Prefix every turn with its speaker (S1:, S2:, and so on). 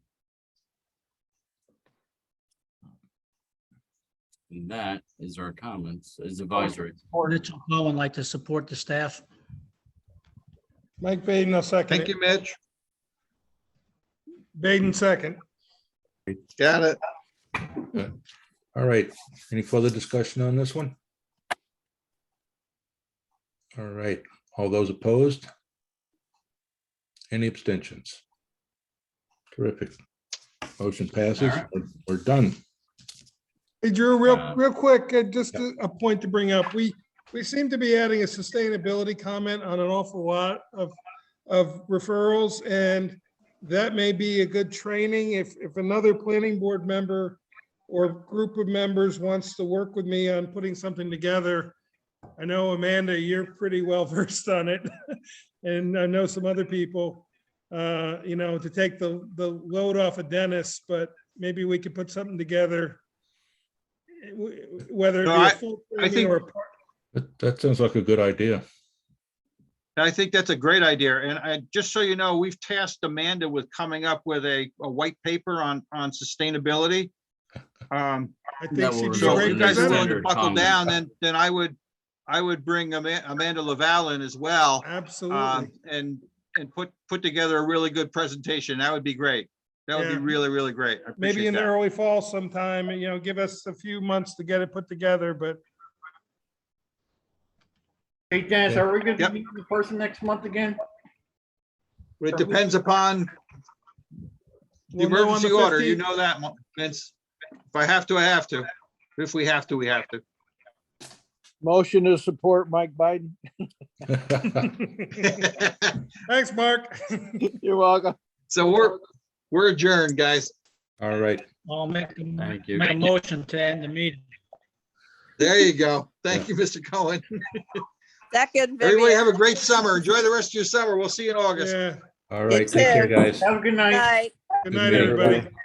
S1: And that is our comments, is advisory.
S2: Mitchell Cohen like to support the staff.
S3: Mike Baden, I'll second
S4: Thank
S3: it.
S4: you, Mitch.
S3: Baden, second.
S4: Got it.
S5: All right, any further discussion on this one? All right, all those opposed? Any abstentions? Terrific. Motion passes,
S1: right.
S5: We're- we're done.
S3: Hey Drew, real,
S1: Uh,
S3: real quick, uh, just a a point to bring up. We, we seem to be adding a sustainability comment on an awful lot of, of referrals. And that may be a good training if, if another planning board member or group of members wants to work with me on putting something together. I know Amanda, you're pretty well versed on it. And I know some other people, uh, you know, to take the, the load off of Dennis, but maybe we could put something together w- whether it be
S4: No,
S3: a
S4: I-
S3: full
S4: I
S3: training
S4: think-
S3: or a part.
S5: That, that sounds like a good idea.
S4: I think that's a great idea. And I, just so you know, we've tasked Amanda with coming up with a, a white paper on, on sustainability. Um,
S3: I
S1: That
S3: think
S1: will
S3: she'd be
S4: so
S3: a
S1: result
S4: if
S3: great
S4: you guys are
S3: presenter.
S4: willing to
S1: Standard
S4: buckle
S1: comment.
S4: down, then, then I would, I would bring Ama- Amanda Laval in as well. um,
S3: Absolutely.
S4: And, and put, put together a really good presentation. That would be great. That would be
S3: Yeah.
S4: really, really great. I
S3: Maybe
S4: appreciate
S3: in the
S4: that.
S3: early fall sometime, you know, give us a few months to get it put together, but
S6: Hey, Dennis,
S5: Yeah.
S6: are we going to
S4: Yep.
S6: meet in person next month again?
S4: It depends upon the
S3: we'll know on the
S4: emergency order. You
S3: 15th.
S4: know that, Mo- Vince. If I have to, I have to. If we have to, we have to.
S7: Motion to support Mike Biden.
S3: Thanks, Mark.
S7: You're welcome.
S4: So we're, we're adjourned, guys.
S5: All right,
S2: I'll make, the-
S1: Thank you.
S2: make a motion to end the meeting.
S4: There you go. Thank you, Mr. Cohen.
S8: Second,
S4: Everybody
S8: Vivian.
S4: have a great summer. Enjoy the rest of your summer. We'll see you in August.
S3: Yeah.
S5: all right, take care, guys.
S6: Have a good night.
S8: Night.
S3: Good
S5: Good
S3: night,
S5: night,
S3: everybody.
S5: everybody.